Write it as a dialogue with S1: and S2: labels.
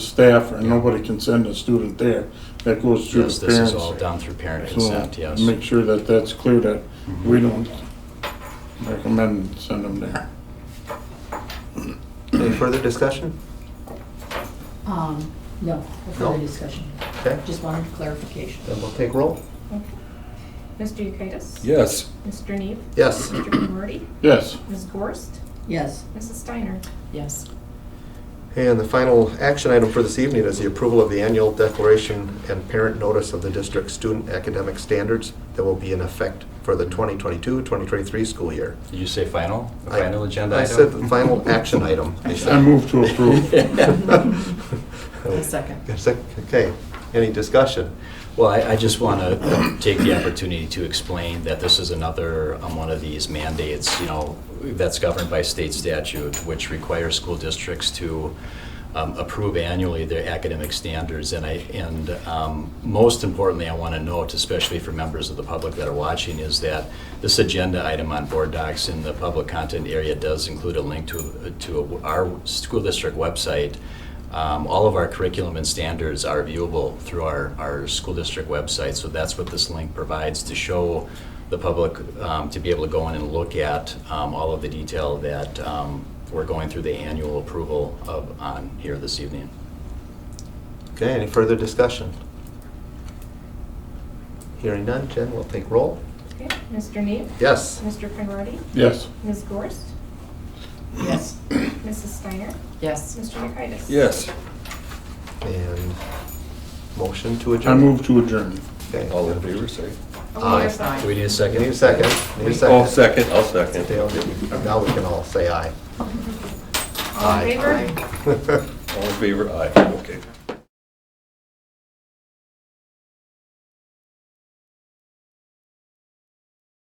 S1: staff, and nobody can send a student there. That goes through
S2: Yes,
S1: the
S2: this
S1: parents.
S2: is all down through parent
S1: So uh,
S2: consent, yes. Mm-hmm.
S1: Make sure that that's clear, that we don't recommend send them there.
S3: Any further discussion?
S4: Um, no, no
S3: No.
S4: further discussion.
S3: Okay,
S4: Just wanted clarification.
S3: then we'll take roll.
S5: Okay. Mr. Yekitis?
S6: Yes.
S5: Mr. Neve?
S3: Yes.
S5: Mr. Conrady?
S1: Yes,
S5: Ms. Gorst?
S4: Yes,
S5: Mrs. Steiner?
S7: Yes.
S3: And the final action item for this evening is the approval of the annual declaration and parent notice of the district's student academic standards that will be in effect for the 2022-2023 school year.
S2: Did you say final? A
S3: I-
S2: Final agenda
S3: I
S2: item?
S3: said the final action item. I said.
S1: I move to approve.
S7: A second.
S3: A sec- Okay, any discussion?
S2: Well, I, I just want to take the opportunity to explain that this is another, um, one of these mandates, you know, that's governed by state statute, which requires school districts to um, approve annually their academic standards. And I, and um, most importantly, I want to note, especially for members of the public that are watching, is that this agenda item on board docs in the public content area does include a link to, to our school district website um, all of our curriculum and standards are viewable through our, our school district website, so that's what this link provides to show the public um, to be able to go in and look at um, all of the detail that um, we're going through the annual approval of on here this evening.
S3: Okay, any further discussion? Hearing none, Jen, we'll take roll.
S5: Okay. Mr. Neve?
S3: Yes.
S5: Mr. Conrady?
S1: Yes,
S5: Ms. Gorst?
S7: Yes.
S5: Mrs. Steiner?
S7: Yes.
S5: Mr. Yekitis?
S6: Yes.
S3: And motion to
S1: I
S3: adjourn.
S1: move to adjourn.
S3: Okay.
S6: All in favor, say.
S5: Oh,
S3: Aye.
S5: yes,
S2: Do we need a second?
S3: Need a second? Need a
S6: I'll second, I'll second.
S3: Okay, okay. Now we can all say aye.
S5: All in favor?
S3: Aye.
S6: All in favor, aye, okay.